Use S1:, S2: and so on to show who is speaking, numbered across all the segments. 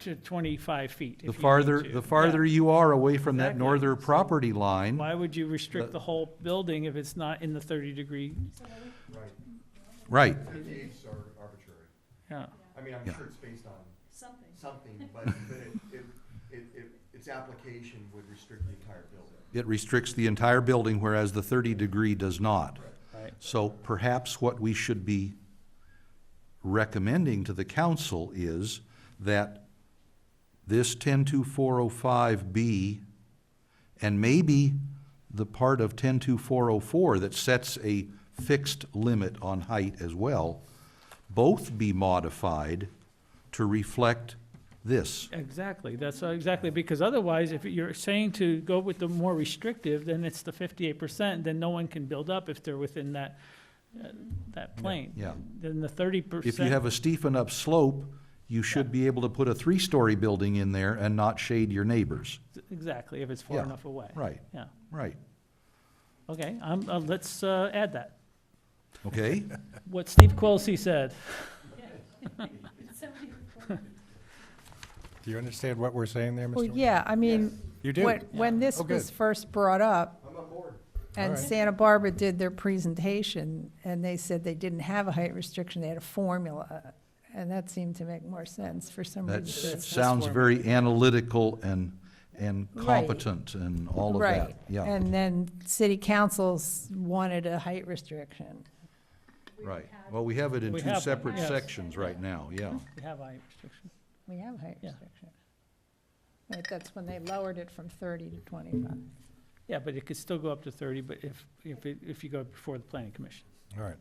S1: to 25 feet if you
S2: The
S1: need
S2: farther,
S1: to.
S2: the
S1: Yeah.
S2: farther you are away from that
S1: Exactly.
S2: northern property line,
S1: Why would you restrict the whole building if it's not in the 30-degree?
S3: Right,
S2: right,
S3: fifty-eights are arbitrary.
S1: Yeah,
S3: I mean, I'm
S2: Yeah.
S3: sure it's based on
S4: something.
S3: something, but, but it, it, it, it- its application would restrict the entire building.
S2: it restricts the entire building, whereas the thirty degree does not.
S1: right.
S2: So perhaps what we should be recommending to the council is that this ten-two-four-oh-five oh B, and maybe the part of ten-two-four-oh-four oh that sets a fixed limit on height as well, both be modified to reflect this.
S1: Exactly, that's exactly, because otherwise, if you're saying to go with the more restrictive, then it's the 58%, then no one can build up if they're within that, uh, that plane.
S2: yeah.
S1: Then the 30%.
S2: If you have a steepened up slope, you should be able to put a three-story building in there and not shade your neighbors.
S1: Exactly, if it's far
S2: Yeah,
S1: enough away.
S2: Right,
S1: Yeah,
S2: right,
S1: okay, um, uh, let's, uh, add that.
S2: okay?
S1: What Steve Quilisi said.
S4: Somebody reported
S5: Do you understand what we're saying there, Mr.
S6: Well,
S5: Wayne?
S6: yeah, I mean,
S5: You do?
S6: when, when this
S5: Oh, good.
S6: was first brought up,
S3: I'm on board.
S6: and
S5: Alright.
S6: Santa Barbara did their presentation, and they said they didn't have a height restriction, they had a formula, and that seemed to make more sense for some
S2: That
S6: reason.
S2: s- sounds very analytical and, and
S6: Right.
S2: competent and all of
S6: Right,
S2: that, yeah,
S6: And then city councils wanted a height restriction.
S2: right. Well, we have it in
S1: We
S2: two
S1: have it,
S2: separate
S1: yes.
S2: sections right now, yeah.
S1: We have height restriction.
S6: We have a height
S1: Yeah.
S6: restriction. But that's when they lowered it from thirty to twenty-five.
S1: Yeah, but it could still go up to 30, but if, if, it- if you go before the planning commission.
S5: All right.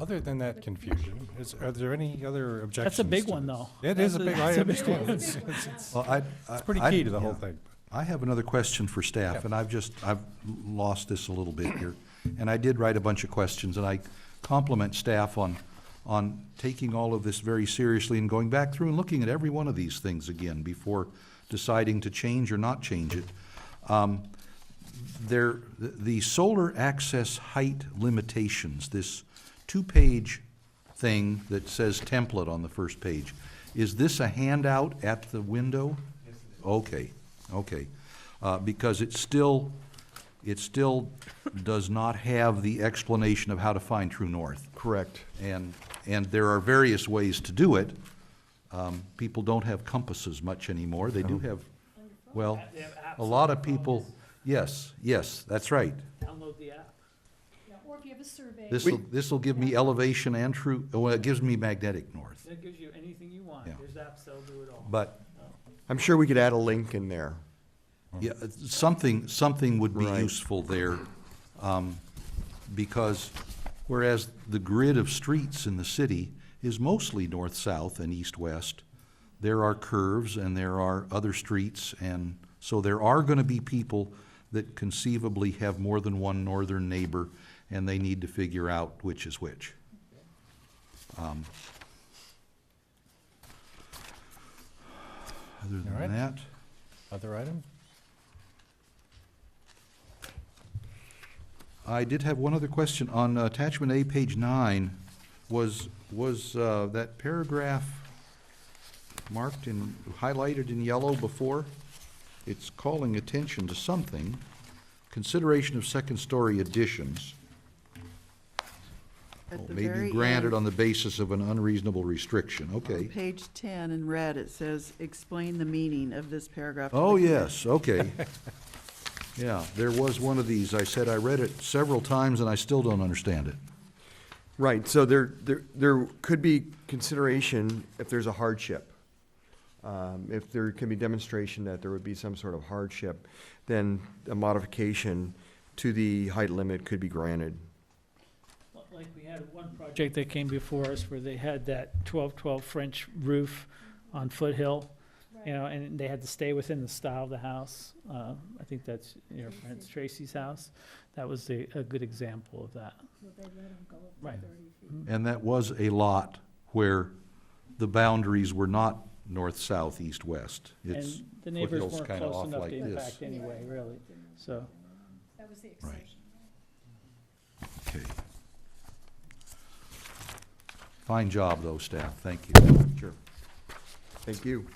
S5: Other than that confusion, is, are there any other objections?
S1: That's a big
S5: to
S1: one,
S5: this?
S1: though.
S5: It is
S1: That's
S5: a big, I
S1: that's a big
S5: understand.
S1: one.
S5: It's it's- it's-
S2: Well, I- I-
S5: it's pretty
S2: I-
S5: key to the whole
S2: yeah.
S5: thing.
S2: I have another question for staff,
S5: Yeah.
S2: and I've just, I've lost this a little bit here. And I did write a bunch of questions, and I compliment staff on, on taking all of this very seriously and going back through and looking at every one of these things again before deciding to change or not change it. Um, There, the- the solar access height limitations, this two-page thing that says template on the first page, is this a handout at the window? Okay, okay. Uh, Because it still, it still does not have the explanation of how to find true north.
S3: Correct.
S2: And, and there are various ways to do it. Um, People don't have compasses much anymore. They do have, well, a lot of people, yes, yes, that's right.
S1: Download the app.
S4: that. Or if you have a survey.
S2: This'll, this'll give me elevation and true, well, it gives me magnetic north.
S1: That gives you anything you want.
S2: Yeah.
S1: There's apps that'll do it all.
S2: But,
S3: I'm sure we could add a link in there.
S2: yeah, something, something would be
S3: Right.
S2: useful there. um, Because whereas the grid of streets in the city is mostly north-south and east-west, there are curves and there are other streets, and so there are going to be people that conceivably have more than one northern neighbor, and they need to figure out which is which. Um, Other
S5: All right.
S2: than that,
S5: Other item?
S2: I did have one other question on uh, attachment A, page nine. Was, was uh, that paragraph marked in, highlighted in yellow before? It's calling attention to something. Consideration of second-story additions.
S7: At the
S2: Maybe
S7: very
S2: granted
S7: end,
S2: on the basis of an unreasonable restriction, okay.
S7: Page 10 in red, it says, explain the meaning of this paragraph. to
S2: Oh,
S7: the committee."
S2: yes, okay. Yeah, there was one of these. I said I read it several times and I still don't understand it.
S3: Right, so there, there, there could be consideration if there's a hardship. Um, if there can be demonstration that there would be some sort of hardship, then a modification to the height limit could be granted.
S1: Well, Like, we had one project that came before us where they had that twelve-twelve French roof on foothill, you know, and they had to stay within the style of the house. Uh, I think that's your friend Tracy's house. That was a, a good example of that. Right.
S2: And that was a lot where the boundaries were not north, south, east, west. It's,
S1: And the neighbors
S2: foothills
S1: weren't
S2: kinda
S1: close
S2: off
S1: enough
S2: like
S1: to
S2: this.
S1: impact anyway, really, so.
S4: That was the exception.
S2: right. Okay. Fine job, though, staff. Thank you. Sure.
S3: Thank you.